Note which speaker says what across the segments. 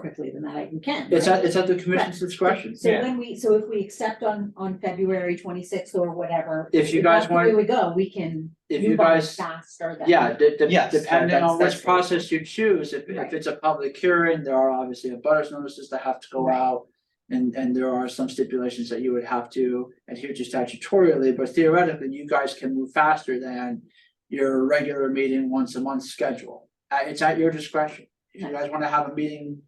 Speaker 1: quickly than that, you can.
Speaker 2: It's
Speaker 1: right?
Speaker 2: at, it's at the commission's discretion.
Speaker 1: So
Speaker 3: yeah.
Speaker 1: when we, so if we accept on, on February twenty-sixth or whatever.
Speaker 2: If you guys
Speaker 1: that's the
Speaker 2: want-
Speaker 1: way we go, we can.
Speaker 2: If you
Speaker 1: move on
Speaker 2: guys,
Speaker 1: Faster than.
Speaker 2: yeah, de- de-
Speaker 3: Yes, that-
Speaker 2: depending
Speaker 3: that's-
Speaker 2: on which
Speaker 3: that's-
Speaker 2: process you choose, if, if
Speaker 1: Right.
Speaker 2: it's a public hearing, there are obviously abutters notices that have to go
Speaker 1: Right.
Speaker 2: out. And, and there are some stipulations that you would have to adhere to statutorily, but theoretically, you guys can move faster than your regular meeting once a month schedule. Uh, it's at your discretion. If you
Speaker 1: Right.
Speaker 2: guys wanna have a meeting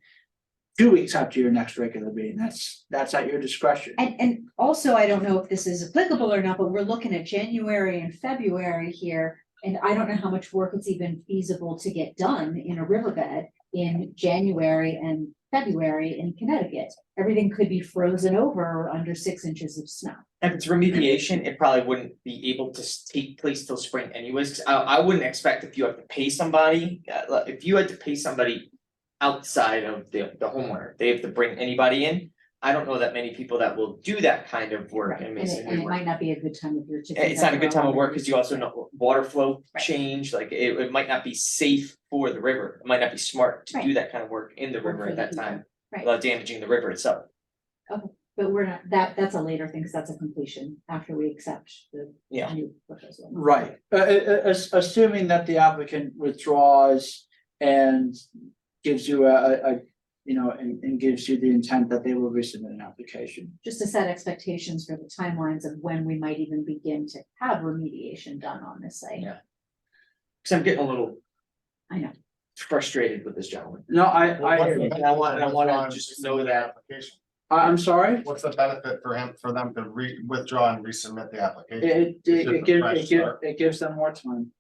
Speaker 2: two weeks after your next regular meeting, that's, that's at your discretion.
Speaker 1: And, and also, I don't know if this is applicable or not, but we're looking at January and February here. And I don't know how much work it's even feasible to get done in a riverbed in January and February in Connecticut. Everything could be frozen over or under six inches of snow.
Speaker 3: If it's remediation, it probably wouldn't be able to s- take place till spring anyways, 'cause I I wouldn't expect if you have to pay somebody, uh, like, if you had to pay somebody. Outside of the the homeowner, they have to bring anybody in, I don't know that many people that will do that kind of work in
Speaker 1: And it,
Speaker 3: masonry
Speaker 1: and it
Speaker 3: work.
Speaker 1: might not be a good time of year to.
Speaker 3: It's not a good time of work, cause you also know water flow
Speaker 1: Right.
Speaker 3: change, like it it might not be safe for the river, it might not be smart to do
Speaker 1: Right.
Speaker 3: that kind of work in the
Speaker 1: Or
Speaker 3: river
Speaker 1: for the
Speaker 3: at that
Speaker 1: people.
Speaker 3: time.
Speaker 1: Right.
Speaker 3: Without damaging the river itself,
Speaker 1: But we're not, that, that's a later thing, because that's a completion after we accept the
Speaker 3: Yeah.
Speaker 1: new proposal.
Speaker 2: Right, uh, uh, uh, as- assuming that the applicant withdraws and gives you a, a, a, you know, and, and gives you the intent that they will resubmit an application.
Speaker 1: Just to set expectations for the timelines of when we might even begin to have remediation done on this site.
Speaker 3: Yeah. cause I'm getting a little
Speaker 1: I know.
Speaker 3: frustrated with this gentleman.
Speaker 2: No, I,
Speaker 4: Well, what's
Speaker 2: I,
Speaker 4: the
Speaker 3: and I want- and I
Speaker 4: benefit
Speaker 3: wanna
Speaker 4: of withdrawing
Speaker 3: just
Speaker 4: and
Speaker 3: know
Speaker 4: resubmitting the
Speaker 3: that-
Speaker 4: application?
Speaker 2: I- I'm sorry,
Speaker 4: What's the benefit for him, for them to re, withdraw and resubmit the
Speaker 2: it,
Speaker 4: application?
Speaker 2: it,
Speaker 4: It's just
Speaker 2: it
Speaker 4: a
Speaker 2: gives,
Speaker 4: fresh
Speaker 2: it gives,
Speaker 4: start.
Speaker 2: it gives them more time.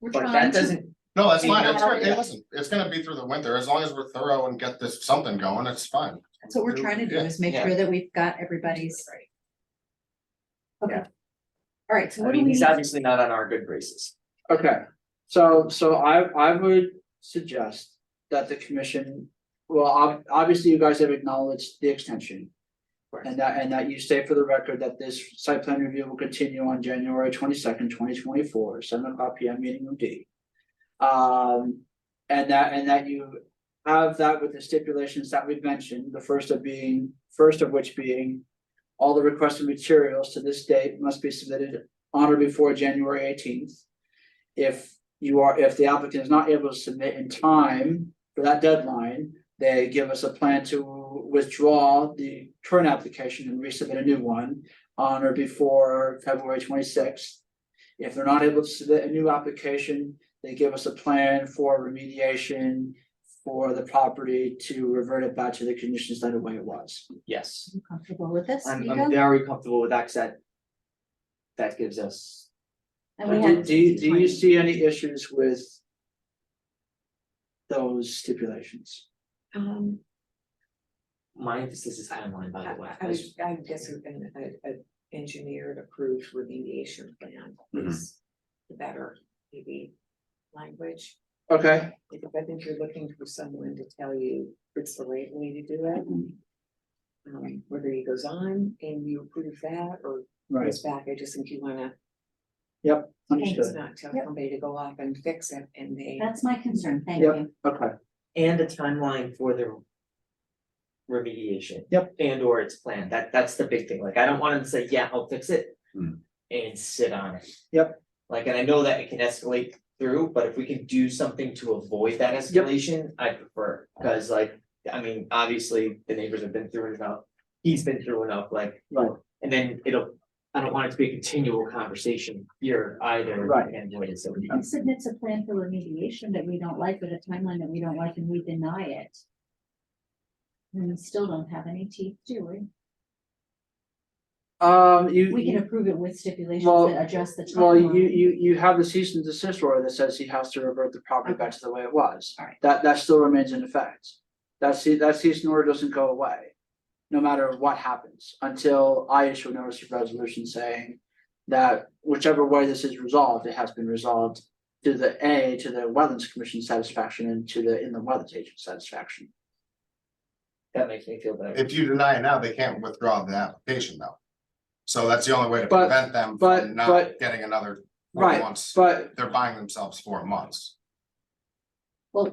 Speaker 1: We're
Speaker 3: But
Speaker 1: trying
Speaker 3: that
Speaker 1: to-
Speaker 3: doesn't,
Speaker 4: No, that's
Speaker 3: Yeah.
Speaker 4: fine, it's, great. Hey, listen, it's gonna be through the winter, as long as we're thorough and get this something going, it's fine.
Speaker 1: That's what we're trying to do,
Speaker 4: Yeah.
Speaker 1: is make
Speaker 3: Yeah.
Speaker 1: sure that we've got everybody's. Okay. All right, so
Speaker 3: I
Speaker 1: what do
Speaker 3: mean,
Speaker 1: we,
Speaker 3: he's obviously not on our good graces.
Speaker 2: Okay, so, so I, I would suggest that the commission, well, ob- obviously you guys have acknowledged the extension.
Speaker 3: Correct.
Speaker 2: And that, and that you state for the record that this site plan review will continue on January twenty-second, twenty twenty-four, seven o'clock P M, meeting room D. Um, and that, and that you have that with the stipulations that we've mentioned, the first of being, first of which being. All the requested materials to this date must be submitted on or before January eighteenth. If you are, if the applicant is not able to submit in time for that deadline, they give us a plan to withdraw the current application and resubmit a new one on or before February twenty-sixth. If they're not able to submit a new application, they give us a plan for remediation for the property to revert it back to the conditions that the way it was.
Speaker 3: Yes,
Speaker 1: you comfortable with this,
Speaker 3: I'm
Speaker 1: Vito?
Speaker 3: I'm very comfortable with that, 'cause that. That gives us,
Speaker 1: And we
Speaker 2: Do-
Speaker 1: have-
Speaker 2: Do, you- do you see any issues with those stipulations?
Speaker 5: Um,
Speaker 3: my emphasis is timeline, by
Speaker 5: I,
Speaker 3: the way.
Speaker 5: I was, I would guess we're gonna, a, a engineered approved remediation plan
Speaker 4: Mhm.
Speaker 5: is the better, maybe language.
Speaker 2: Okay,
Speaker 5: Because I think you're looking for someone to tell you it's the right way to do it. Um, whether he goes on and you approve that or
Speaker 2: right,
Speaker 5: goes back, I just think you wanna,
Speaker 2: understood,
Speaker 5: it's not tell
Speaker 1: Yep.
Speaker 5: somebody to go off and fix it and they.
Speaker 1: That's my concern, thank
Speaker 2: Yep.
Speaker 1: you.
Speaker 2: okay,
Speaker 3: And the timeline for the. Remediation.
Speaker 2: Yep.
Speaker 3: And or its plan, that that's the big thing, like, I don't want him to say, yeah, I'll fix it.
Speaker 4: Hmm.
Speaker 3: And sit on it.
Speaker 2: Yep.
Speaker 3: Like, and I know that it can escalate through, but if we can do something to avoid that escalation, I prefer, cause like, I mean, obviously, the neighbors have been through enough. He's been through enough, like,
Speaker 2: right,
Speaker 3: And then it'll, I don't want it to be a continual conversation here either.
Speaker 2: Right.
Speaker 3: And what is, so we-
Speaker 1: He submits a plan for remediation that we don't like, with a timeline that we don't like, and we deny it. And we still don't have any teeth, do we?
Speaker 2: um, you.
Speaker 1: We
Speaker 2: you-
Speaker 1: can approve it with stipulations
Speaker 2: Well,
Speaker 1: that adjust the
Speaker 2: Well, you,
Speaker 1: timeline.
Speaker 2: you, you have the cease and desist order that says he has to revert the property back to the way it was.
Speaker 1: Alright.
Speaker 2: That, that still remains in effect. That cease, that cease and order doesn't go away, no matter what happens, until I issue a notice of resolution saying that whichever way this is resolved, it has been resolved to the A, to the Wetlands Commission satisfaction and to the inland wetlands agent satisfaction.
Speaker 3: that makes me feel better.
Speaker 4: If you deny it now, they can't withdraw the application though. So that's the only way to
Speaker 2: But-
Speaker 4: prevent them
Speaker 2: but-
Speaker 4: from not
Speaker 2: but-
Speaker 4: getting another.
Speaker 2: Right,
Speaker 4: Once
Speaker 2: But
Speaker 4: they're buying themselves four months.
Speaker 1: Well,